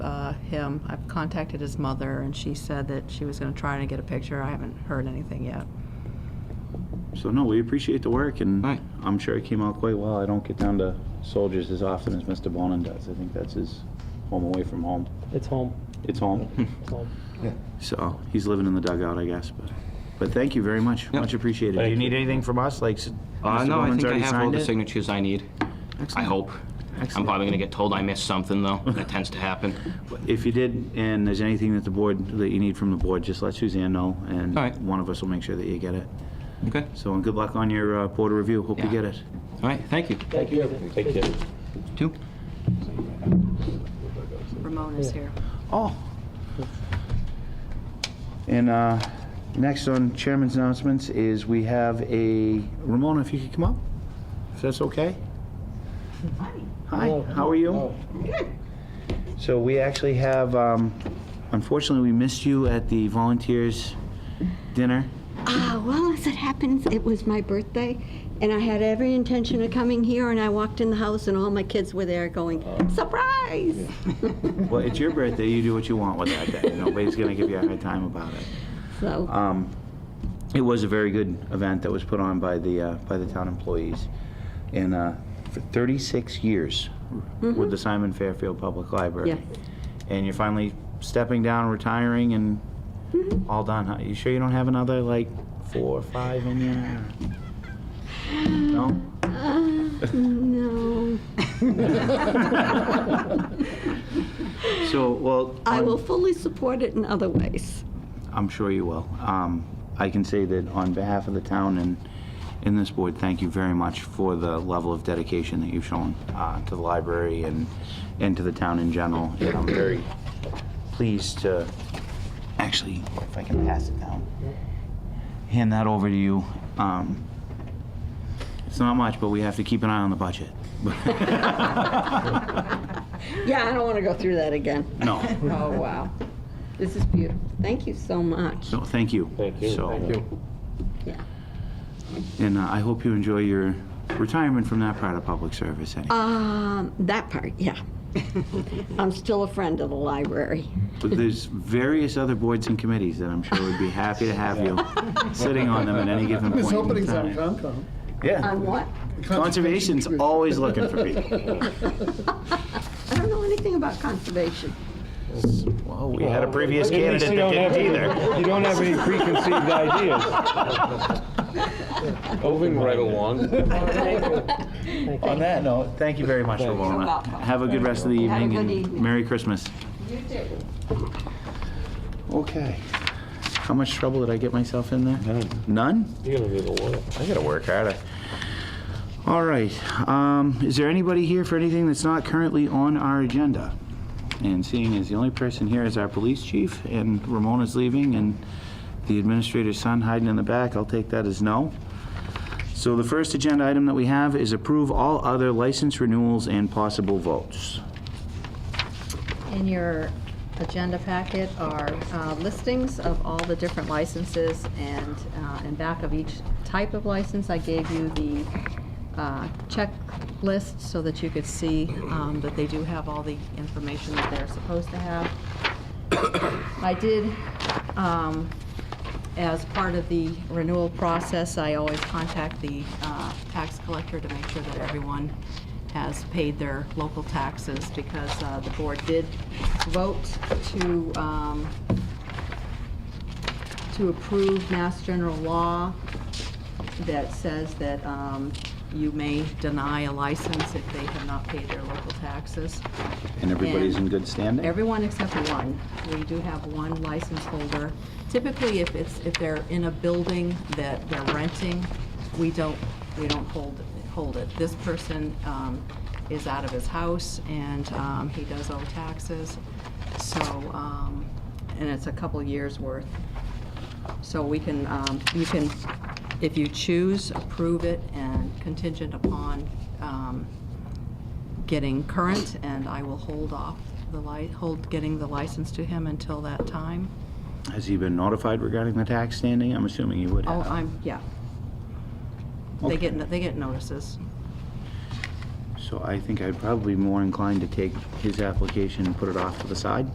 uh, him. I've contacted his mother, and she said that she was going to try and get a picture. I haven't heard anything yet. So no, we appreciate the work, and Right. I'm sure it came out quite well. I don't get down to soldiers as often as Mr. Bonin does. I think that's his home away from home. It's home. It's home, It's home. so he's living in the dugout, I guess. But, but thank you very much. Yeah. Much appreciated. Do you need anything from us? Like, s- Uh, Mr. no, I Bonin's think I already have all signed the it? signatures I need. I Excellent. hope. I'm Excellent. probably gonna get told I missed something, though. That tends to happen. If you did, and there's anything that the board that you need from the board, just let Suzanne know, and All right. one of us will make sure that you get it. Okay? So, and good luck on your uh, board review. Hope you Yeah. get it. All right, thank you. Thank you. Thank you. Two? Ramon is here. Oh. And uh, next on chairman's announcements is we have a, Ramona, if you could come up, if that's okay? Hi. Hello. Hi, how are you? So we actually have, um, unfortunately, we missed you at the volunteers dinner. Ah, well, as it happens, it was my birthday, and I had every intention of coming here, and I walked in the house, and all my kids were there going, surprise! Well, it's your birthday, you do what you want with that day. Nobody's going to give you a hard time about it. So, Um, It was a very good event that was put on by the, uh, by the town employees. And uh, for 36 years Mm-hmm. with the Simon Fairfield Public Library. Yes. And you're finally stepping down, retiring, and Mm-hmm. all done. huh? You sure you don't have another, like, four or five in you? No? no, So, well... I on- will fully support it in other ways. I'm sure you will. Um, I can say that on behalf of the town and in this board, thank you very much for the level of dedication that you've shown uh, to the library and, and to the town in general. And I'm very pleased to, actually, if I can pass it down, hand that over to you. Um, It's not much, but we have to keep an eye on the budget. Yeah, I don't want to go through that again. No, Oh, wow. This is beautiful. Thank you so much. no, thank you. Thank you. Thank you. Yeah. And uh, I hope you enjoy your retirement from that part of public service anyway. Um, that part, yeah. I'm still a friend of the library. But there's various other boards and committees that I'm sure would be happy to have you sitting on them at any given There's point in openings on time. Concom. On Yeah, what? conservation's always looking for people. I don't know anything about conservation. Well, we had a previous candidate You that don't have didn't either. any- you don't have any preconceived ideas. Moving right along. On that note, thank you very much, Ramona. Have a good rest of the Have a evening good and evening. Merry Christmas. Okay. How much trouble did I get myself in there? None? You're gonna be the one. I gotta work harder. All right, um, is there anybody here for anything that's not currently on our agenda? And seeing as the only person here is our police chief, and Ramona's leaving, and the administrator's son hiding in the back, I'll take that as no. So the first agenda item that we have is approve all other license renewals and possible votes. In your agenda packet are uh, listings of all the different licenses, and uh, in back of each type of license, I gave you the uh, checklist so that you could see um, that they do have all the information that they're supposed to have. I did, um, as part of the renewal process, I always contact the uh, tax collector to make sure that everyone has paid their local taxes, because uh, the board did vote to um, to approve Mass General Law that says that um, you may deny a license if they have not paid their local taxes. And everybody's in good standing? Everyone except one. We do have one license holder. Typically, if it's, if they're in a building that they're renting, we don't, we don't hold, hold it. This person um, is out of his house and um, he does owe taxes, so, um, and it's a couple years' worth. So we can, um, you can, if you choose, approve it and contingent upon um, getting current, and I will hold off the li, hold getting the license to him until that time. Has he been notified regarding the tax standing? I'm assuming he would Oh, have. I'm, yeah. They get, no- they get notices. So I think I'd probably be more inclined to take his application and put it off to the side.